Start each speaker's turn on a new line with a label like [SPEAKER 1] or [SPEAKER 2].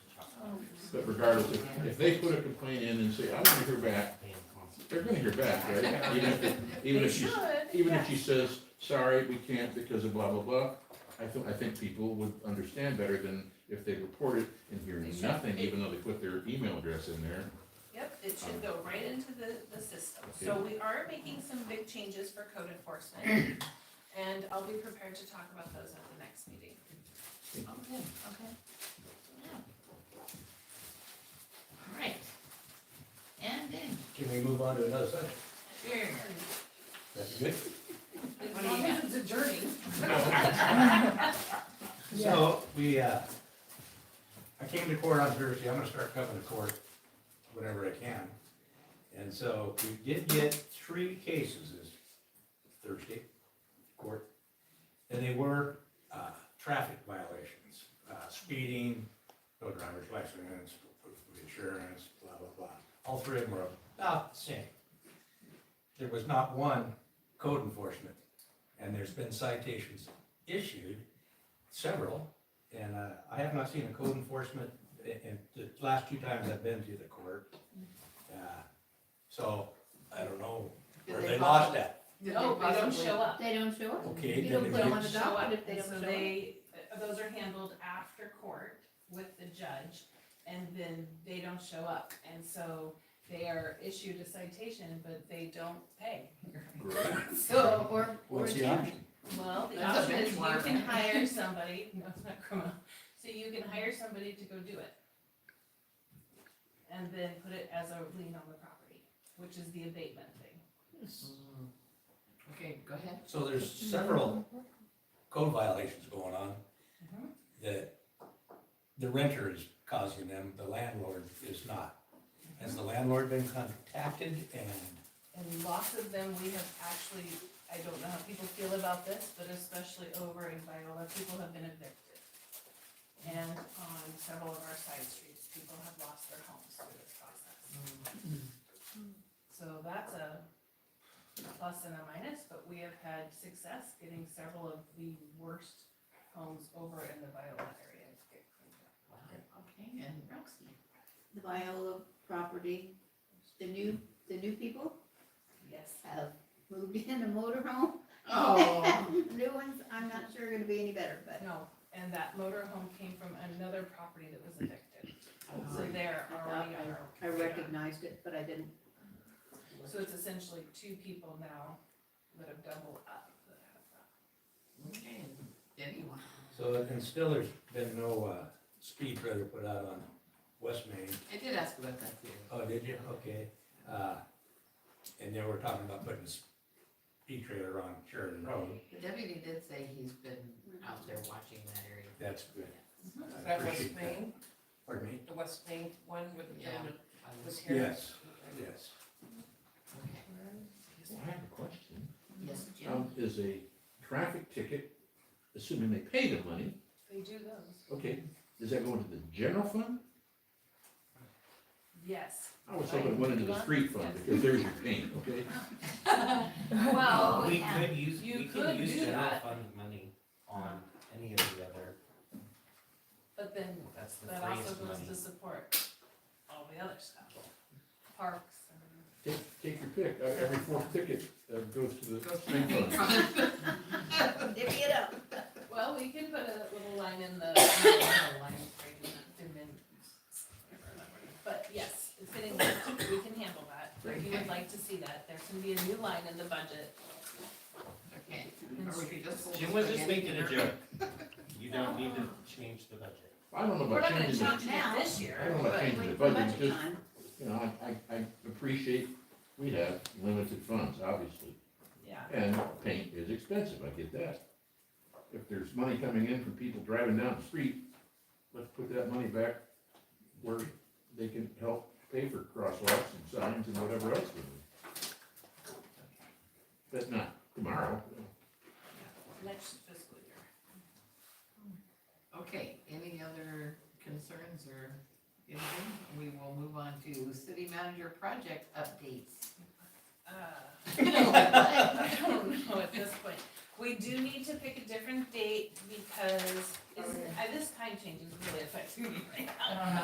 [SPEAKER 1] But regardless, if, if they put a complaint in and say, I don't hear back, they're gonna hear back, right? Even if, it- even
[SPEAKER 2] They
[SPEAKER 1] if
[SPEAKER 2] should,
[SPEAKER 1] she's, even
[SPEAKER 2] yeah.
[SPEAKER 1] if she says, sorry, we can't because of blah, blah, blah, I think, I think people would understand better than if they report it and hear
[SPEAKER 2] They should.
[SPEAKER 1] nothing, even though they put their email address in there.
[SPEAKER 2] Yep, it should go right into the, the system. So we are making some big changes for code enforcement, and I'll be prepared to talk about those at the next meeting.
[SPEAKER 3] Oh, good, okay. Yeah. All right. And then,
[SPEAKER 4] Can we move on to another section?
[SPEAKER 3] here,
[SPEAKER 4] That's good.
[SPEAKER 2] As long as it's adjourned.
[SPEAKER 4] So, we, uh, I came to court on Thursday, I'm gonna start coming to court whenever I can. And so, we did get three cases this Thursday, court. And they were, uh, traffic violations, uh, speeding, no driver's license, insurance, blah, blah, blah. All three of them were about the same. There was not one code enforcement, and there's been citations issued several, and uh, I have not seen a code enforcement, i- in the last two times I've been to the court. Uh, So, I don't know, where
[SPEAKER 5] Did they
[SPEAKER 4] they
[SPEAKER 5] follow-
[SPEAKER 4] lost that.
[SPEAKER 5] Did
[SPEAKER 2] No,
[SPEAKER 5] they
[SPEAKER 2] they don't
[SPEAKER 5] possibly-
[SPEAKER 2] show up.
[SPEAKER 3] they don't show up.
[SPEAKER 4] Okay,
[SPEAKER 3] You
[SPEAKER 4] then
[SPEAKER 3] don't
[SPEAKER 4] it
[SPEAKER 3] put them
[SPEAKER 4] didn't-
[SPEAKER 3] on the docket if they
[SPEAKER 2] And
[SPEAKER 3] don't
[SPEAKER 2] so
[SPEAKER 3] show up.
[SPEAKER 2] they, uh, those are handled after court with the judge, and then they don't show up. And so they are issued a citation, but they don't pay.
[SPEAKER 1] Right.
[SPEAKER 3] So, or, or
[SPEAKER 6] What's the
[SPEAKER 3] attorney.
[SPEAKER 6] option?
[SPEAKER 2] Well, the
[SPEAKER 5] That's a
[SPEAKER 2] option is you
[SPEAKER 5] benchmark.
[SPEAKER 2] can hire somebody, no, it's not criminal, so you can hire somebody to go do it. And then put it as a lien on the property, which is the abatement thing.
[SPEAKER 5] Mm. Okay, go ahead.
[SPEAKER 4] So there's several code violations going on
[SPEAKER 2] Mhm.
[SPEAKER 4] that the renter is causing them, the landlord is not. Has the landlord been contacted and,
[SPEAKER 2] And lots of them, we have actually, I don't know how people feel about this, but especially over in Viola, people have been evicted. And on several of our side streets, people have lost their homes through this process. So that's a plus and a minus, but we have had success getting several of the worst homes over in the Viola area to get cleaned up.
[SPEAKER 5] Wow, Okay, and Roxy.
[SPEAKER 3] The Viola property, the new, the new people
[SPEAKER 2] Yes.
[SPEAKER 3] have moved in a motorhome.
[SPEAKER 5] Oh.
[SPEAKER 3] New ones, I'm not sure are gonna be any better, but
[SPEAKER 2] No, and that motor home came from another property that was evicted, so
[SPEAKER 5] Oh,
[SPEAKER 2] they're already on our.
[SPEAKER 3] I recognized it, but I didn't.
[SPEAKER 2] So it's essentially two people now that have doubled up that have that.
[SPEAKER 5] Okay, and Denny, wow.
[SPEAKER 4] so, and still there's been no, uh, speed trailer put out on West Main.
[SPEAKER 5] I did ask about that too.
[SPEAKER 4] Oh, did you? Okay. Uh, and they were talking about putting a speed trailer on Sheridan Road.
[SPEAKER 5] The deputy did say he's been out there watching that area.
[SPEAKER 4] That's good. I
[SPEAKER 7] That West
[SPEAKER 4] appreciate that.
[SPEAKER 7] Main,
[SPEAKER 4] Pardon me?
[SPEAKER 7] the West Main one with the
[SPEAKER 5] Yeah.
[SPEAKER 7] gentleman
[SPEAKER 5] I
[SPEAKER 7] was here?
[SPEAKER 4] Yes, yes.
[SPEAKER 5] Okay.
[SPEAKER 1] Well, I have a question.
[SPEAKER 5] Yes, Jim?
[SPEAKER 1] Um, is a traffic ticket, assuming they pay the money,
[SPEAKER 2] They do those?
[SPEAKER 1] okay, does that go into the general fund?
[SPEAKER 2] Yes.
[SPEAKER 1] I was hoping it went into the street fund, because there's your pain, okay?
[SPEAKER 2] Well,
[SPEAKER 8] Oh, We
[SPEAKER 3] yeah.
[SPEAKER 8] could use,
[SPEAKER 2] You
[SPEAKER 8] we
[SPEAKER 2] could
[SPEAKER 8] could use
[SPEAKER 2] do
[SPEAKER 8] general
[SPEAKER 2] that.
[SPEAKER 8] fund money on any of the other,
[SPEAKER 2] but then
[SPEAKER 8] that's the
[SPEAKER 2] that also
[SPEAKER 8] freest
[SPEAKER 2] goes
[SPEAKER 8] money.
[SPEAKER 2] to support all the other stuff, parks and.
[SPEAKER 1] Take, take your pick, Uh, every fourth ticket uh, goes to the street fund.
[SPEAKER 3] Divvy it up.
[SPEAKER 2] Well, we can put a little line in the, not a line, right, in the- in the- But yes, it's getting, worked. we can handle that, if you would like to see that, there's gonna be a new line in the budget.
[SPEAKER 5] Okay. Or we could just-
[SPEAKER 8] Jim was just making a joke. You don't need to change the budget.
[SPEAKER 1] I don't know
[SPEAKER 2] We're
[SPEAKER 1] about
[SPEAKER 2] not gonna
[SPEAKER 1] changing, the-
[SPEAKER 2] change it this year,
[SPEAKER 1] I don't know
[SPEAKER 2] but-
[SPEAKER 1] about changing the
[SPEAKER 3] Wait for
[SPEAKER 1] budget,
[SPEAKER 3] budget
[SPEAKER 1] just,
[SPEAKER 3] time.
[SPEAKER 1] you know, I, I, I appreciate, we have limited funds, obviously.
[SPEAKER 2] yeah.
[SPEAKER 1] And paint is expensive, I get that. If there's money coming in from people driving down the street, let's put that money back where they can help pay for crosswalks and signs and whatever else we need. But not tomorrow.
[SPEAKER 2] Next fiscal year.
[SPEAKER 5] Okay, any other concerns or anything? We will move on to city manager project updates.
[SPEAKER 2] Uh, I don't know at this point. We do need to pick a different date because, is, uh, this time change is really affecting me right now.